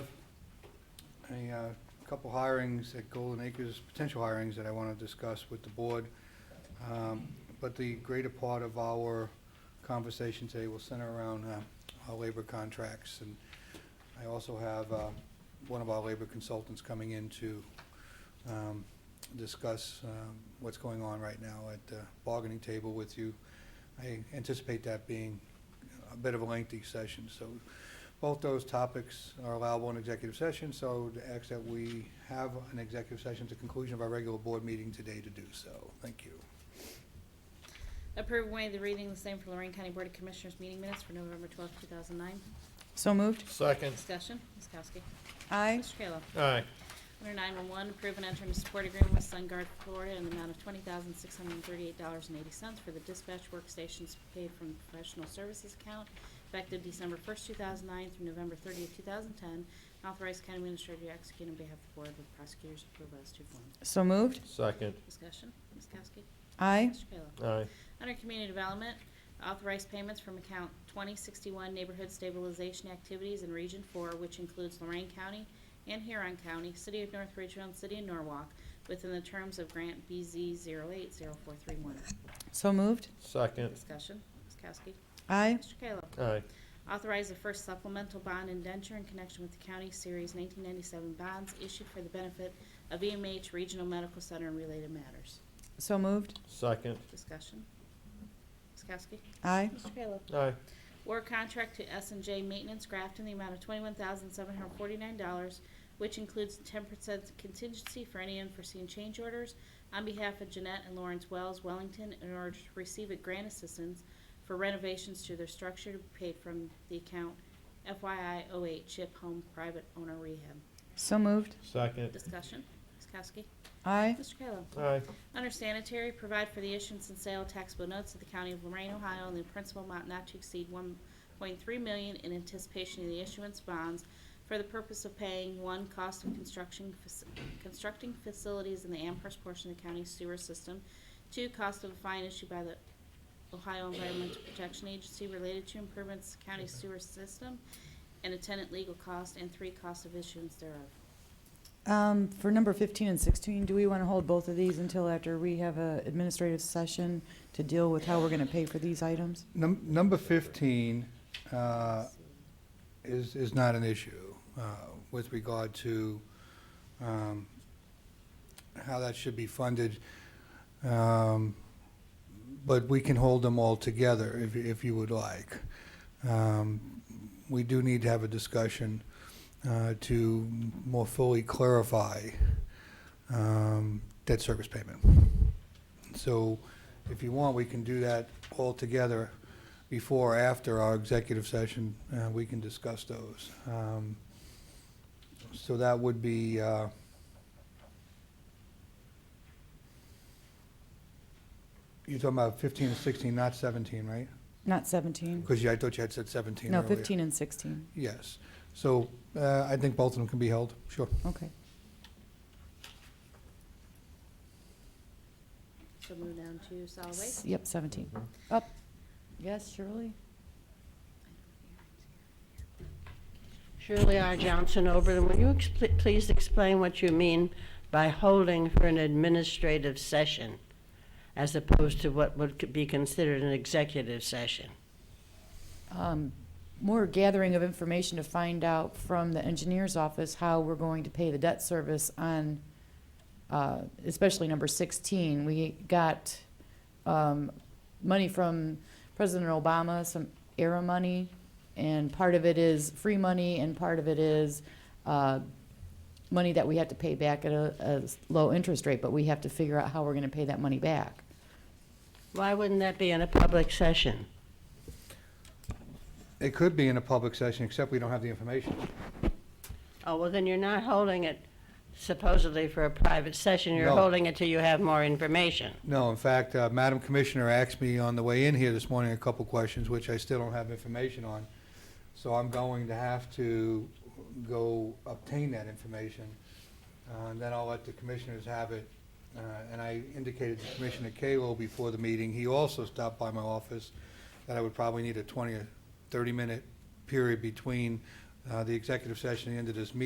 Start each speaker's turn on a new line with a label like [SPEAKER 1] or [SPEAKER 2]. [SPEAKER 1] a uh, couple hirings at Golden Acres, potential hirings that I want to discuss with the board. Um, But the greater part of our conversation today will center around uh, our labor contracts. And I also have uh, one of our labor consultants coming in to um, discuss um, what's going on right now at the bargaining table with you. I anticipate that being a bit of a lengthy session, so both those topics are allowable in executive session, so to ask that we have an executive session at the conclusion of our regular board meeting today to do so. Thank you.
[SPEAKER 2] Approve and waive the reading of the same for Lorraine County Board of Commissioners meeting minutes for November twelfth, two thousand nine.
[SPEAKER 3] So moved.
[SPEAKER 4] Second.
[SPEAKER 2] Discussion, Ms. Kowski.
[SPEAKER 3] Aye.
[SPEAKER 2] Mr. Kayla.
[SPEAKER 4] Aye.
[SPEAKER 2] Under nine-one-one, approve and enter into support agreement with SunGuard Florida in the amount of twenty thousand six hundred and thirty-eight dollars and eighty cents for the dispatch workstations paid from the professional services account effective December first, two thousand nine through November thirtieth, two thousand ten. Authorize county administrator to execute on behalf of the board with prosecutors approval as to form.
[SPEAKER 3] So moved.
[SPEAKER 4] Second.
[SPEAKER 2] Discussion, Ms. Kowski.
[SPEAKER 3] Aye.
[SPEAKER 2] Mr. Kayla.
[SPEAKER 4] Aye.
[SPEAKER 2] Under Community Development, authorize payments from account 2061 Neighborhood Stabilization Activities in Region 4, which includes Lorraine County and Huron County, City of North Ridgeville, and City of Norwalk, within the terms of Grant BZ 080431.
[SPEAKER 3] So moved.
[SPEAKER 4] Second.
[SPEAKER 2] Discussion, Ms. Kowski.
[SPEAKER 3] Aye.
[SPEAKER 2] Mr. Kayla.
[SPEAKER 4] Aye.
[SPEAKER 2] Authorize the first supplemental bond indenture in connection with the county series 1997 bonds issued for the benefit of EMH Regional Medical Center and related matters.
[SPEAKER 3] So moved.
[SPEAKER 4] Second.
[SPEAKER 2] Discussion, Ms. Kowski.
[SPEAKER 3] Aye.
[SPEAKER 2] Mr. Kayla.
[SPEAKER 4] Aye.
[SPEAKER 2] War contract to s and J Maintenance Grafton in the amount of $21,749, which includes 10% contingency for any unforeseen change orders on behalf of Jeanette and Lawrence Wells Wellington in order to receive a grant assistance for renovations to their structure to be paid from the account FYI08 Chip Home Private Owner Rehab.
[SPEAKER 3] So moved.
[SPEAKER 4] Second.
[SPEAKER 2] Discussion, Ms. Kowski.
[SPEAKER 3] Aye.
[SPEAKER 2] Mr. Kayla.
[SPEAKER 4] Aye.
[SPEAKER 2] Under sanitary, provide for the issuance and sale of taxable notes of the County of Lorraine, Ohio, in the principal amount not to exceed one point three million in anticipation of the issuance bonds for the purpose of paying, one, cost of construction, faci- constructing facilities in the Amherst portion of the county sewer system, two, cost of a fine issued by the Ohio Environmental Protection Agency related to improvements to the county sewer system, and attendant legal cost, and three, cost of issuance thereof.
[SPEAKER 3] Um, For number 15 and 16, do we want to hold both of these until after we have a administrative session to deal with how we're going to pay for these items?
[SPEAKER 1] Num- Number 15 uh, is is not an issue uh, with regard to um, how that should be funded, Um, but we can hold them all together if you- if you would like. Um, We do need to have a discussion uh, to more fully clarify um, debt service payment. So if you want, we can do that all together before or after our executive session. uh, We can discuss those. Um, So that would be, uh, you're talking about 15 and 16, not 17, right?
[SPEAKER 3] Not 17?
[SPEAKER 1] Because I thought you had said 17
[SPEAKER 3] No,
[SPEAKER 1] earlier.
[SPEAKER 3] 15 and 16.
[SPEAKER 1] Yes. So uh, I think both of them can be held, sure.
[SPEAKER 3] Okay.
[SPEAKER 2] So move down to solid waste.
[SPEAKER 3] Yep, 17. Up. Yes, Shirley?
[SPEAKER 5] Shirley R. Johnson, Oberlin, will you expl- please explain what you mean by holding for an administrative session as opposed to what would be considered an executive session?
[SPEAKER 3] um, more gathering of information to find out from the engineer's office how we're going to pay the debt service on, uh, especially number 16. We got um, money from President Obama, some era money, and part of it is free money, and part of it is uh, money that we have to pay back at a, a low interest rate, but we have to figure out how we're going to pay that money back.
[SPEAKER 5] Why wouldn't that be in a public session?
[SPEAKER 1] It could be in a public session, except we don't have the information.
[SPEAKER 5] Oh, well, then you're not holding it supposedly for a private session, you're
[SPEAKER 1] No.
[SPEAKER 5] holding it till you have more information.
[SPEAKER 1] No, in fact, uh, Madam Commissioner asked me on the way in here this morning a couple questions, which I still don't have information on. So I'm going to have to go obtain that information, uh, and then I'll let the commissioners have it. Uh, And I indicated to Commissioner Kalo before the meeting, he also stopped by my office, that I would probably need a 20 or 30-minute period between uh, the executive session and the end of this meeting